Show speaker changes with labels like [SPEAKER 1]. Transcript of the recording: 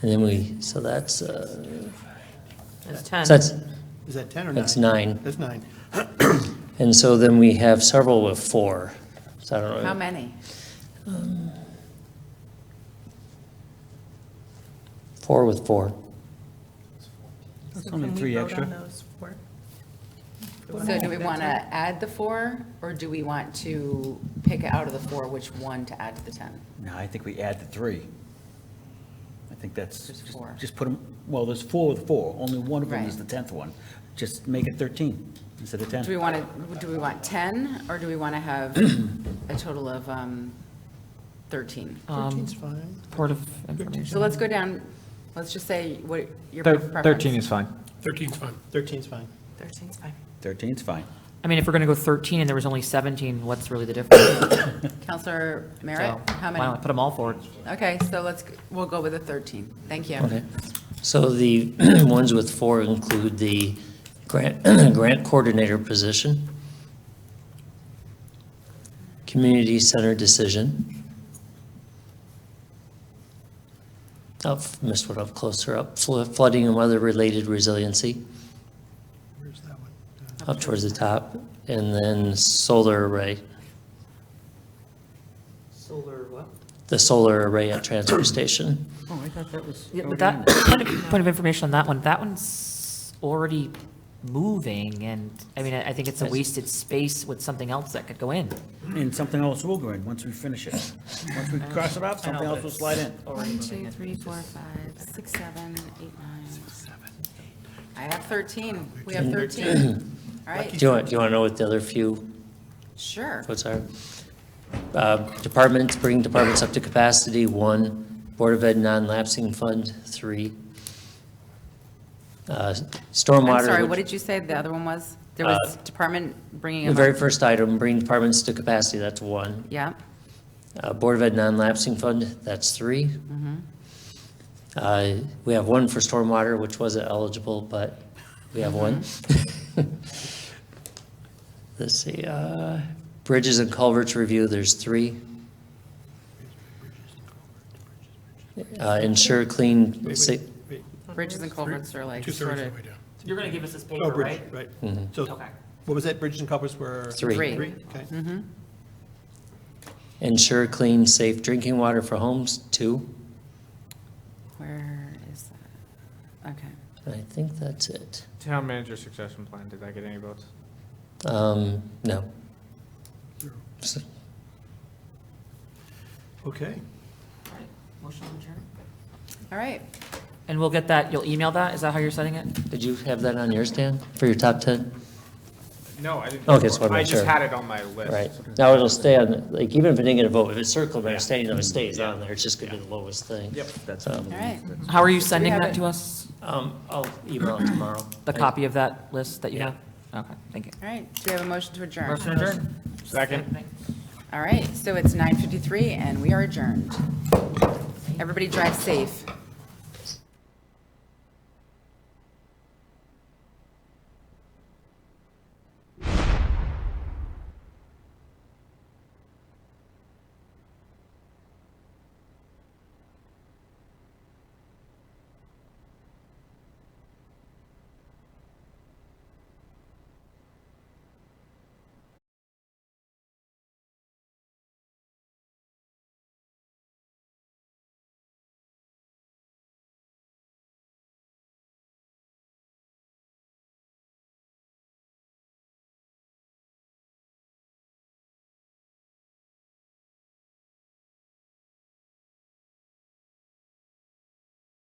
[SPEAKER 1] And then we, so that's, uh,
[SPEAKER 2] That's 10.
[SPEAKER 1] so that's,
[SPEAKER 3] Is that 10 or 9?
[SPEAKER 1] that's nine.
[SPEAKER 3] That's 9.
[SPEAKER 1] And so then we have several with four. So I don't
[SPEAKER 4] How
[SPEAKER 1] know,
[SPEAKER 4] many?
[SPEAKER 1] four with four.
[SPEAKER 5] So
[SPEAKER 6] only
[SPEAKER 5] can we
[SPEAKER 6] three
[SPEAKER 5] vote
[SPEAKER 6] extra.
[SPEAKER 5] on those four?
[SPEAKER 4] So do we want to add the four, or do we want to pick out of the four which one to add to the 10?
[SPEAKER 6] No, I think we add the three. I think that's.
[SPEAKER 4] There's four.
[SPEAKER 6] Just put them, well, there's four with four, only one of them is
[SPEAKER 4] Right.
[SPEAKER 6] the 10th one. Just make it 13 instead of
[SPEAKER 4] Do we
[SPEAKER 6] 10.
[SPEAKER 4] want to, do we want 10, or do we want to have a total of um, 13?
[SPEAKER 3] 13's fine.
[SPEAKER 2] Board Um, of
[SPEAKER 4] So
[SPEAKER 2] Information.
[SPEAKER 4] let's go down, let's just say what your
[SPEAKER 7] Thir-
[SPEAKER 4] preference.
[SPEAKER 7] 13 is fine.
[SPEAKER 8] 13's fine.
[SPEAKER 3] 13's fine.
[SPEAKER 2] 13's fine.
[SPEAKER 6] 13's fine.
[SPEAKER 2] I mean, if we're going to go 13 and there was only 17, what's really the difference?
[SPEAKER 4] Counselor Merritt,
[SPEAKER 2] So,
[SPEAKER 4] how
[SPEAKER 2] Why not
[SPEAKER 4] many?
[SPEAKER 2] put them all forward?
[SPEAKER 4] Okay, so let's, we'll go with the 13. Thank you.
[SPEAKER 1] Okay. So the ones with four include the grant, grant coordinator position, community center decision. Up, missed one up closer up, flo- flooding and weather-related resiliency,
[SPEAKER 3] Where's that one? Uh,
[SPEAKER 1] up towards the top, and then solar array,
[SPEAKER 3] Solar what?
[SPEAKER 1] the solar array at transfer station.
[SPEAKER 6] Oh, I thought that was.
[SPEAKER 2] Yeah, but
[SPEAKER 6] already
[SPEAKER 2] that,
[SPEAKER 6] in there.
[SPEAKER 2] point of- point of information on that one, that one's already moving, and, I mean, I I think it's a wasted space with something else that could go in.
[SPEAKER 6] And something else will go in, once we finish it. Once we cross it off, something else will slide in.
[SPEAKER 4] One, two, three, four, five, six, seven, eight, nine. I have 13. We have 13. All
[SPEAKER 1] Do
[SPEAKER 4] right,
[SPEAKER 1] you want, do you want to know what the other few
[SPEAKER 4] sure.
[SPEAKER 1] What's our, uh, departments, bringing departments up to capacity, one. Board of Ed non-lapsing fund, three. Uh, Stormwater.
[SPEAKER 4] I'm sorry,
[SPEAKER 1] which- Uh,
[SPEAKER 4] what did you say the other one was? There was department bringing
[SPEAKER 1] The
[SPEAKER 4] them up.
[SPEAKER 1] very first item, bring departments to capacity, that's one.
[SPEAKER 4] Yeah,
[SPEAKER 1] Uh, Board of Ed non-lapsing fund, that's three. Uh, We have one for stormwater, which wasn't eligible, but we have one. Let's see, uh, bridges and culverts review, there's three. Uh, Ensure clean,
[SPEAKER 3] Wait,
[SPEAKER 1] sa-
[SPEAKER 3] wait, wait.
[SPEAKER 4] bridges and culverts are like sort
[SPEAKER 8] Two-thirds of
[SPEAKER 4] of,
[SPEAKER 8] the way down.
[SPEAKER 2] You're going to give us this paper,
[SPEAKER 3] Oh, bridge, right. So
[SPEAKER 2] Okay.
[SPEAKER 3] what was that? Bridges and culverts were?
[SPEAKER 1] Mm-hmm. Three.
[SPEAKER 4] Three. Mm-hmm.
[SPEAKER 3] Three, okay.
[SPEAKER 1] ensure clean, safe drinking water for homes, two.
[SPEAKER 4] where is that? Okay.
[SPEAKER 1] I think that's it.
[SPEAKER 7] Town manager succession plan, did that get any votes?
[SPEAKER 1] Um, No. S-
[SPEAKER 3] Okay.
[SPEAKER 2] Motion adjourned.
[SPEAKER 4] All right.
[SPEAKER 2] And we'll get that, you'll email that, is that how you're setting it?
[SPEAKER 1] Did you have that on yours, Dan, for your top 10?
[SPEAKER 7] No, I didn't.
[SPEAKER 1] Okay, so I'm
[SPEAKER 7] I
[SPEAKER 1] not
[SPEAKER 7] just
[SPEAKER 1] sure.
[SPEAKER 7] had it on my list.
[SPEAKER 1] Right. Now it'll stay on, like, even if it didn't get a vote, if it's circled, by abstaining, though, it stays on there. It's just going to be the lowest thing.
[SPEAKER 7] Yep.
[SPEAKER 6] That's.
[SPEAKER 1] Um,
[SPEAKER 4] All right.
[SPEAKER 2] How are you sending
[SPEAKER 4] have
[SPEAKER 2] that
[SPEAKER 4] it.
[SPEAKER 2] to us?
[SPEAKER 1] Um, I'll email it tomorrow.
[SPEAKER 2] The copy of that list that you
[SPEAKER 1] Yeah.
[SPEAKER 2] have? Okay, thank you.
[SPEAKER 4] All right. Do we have a motion to adjourn?
[SPEAKER 2] Motion adjourned.
[SPEAKER 7] Second.
[SPEAKER 4] All right. So it's 9:53 and we are adjourned. Everybody drive safe.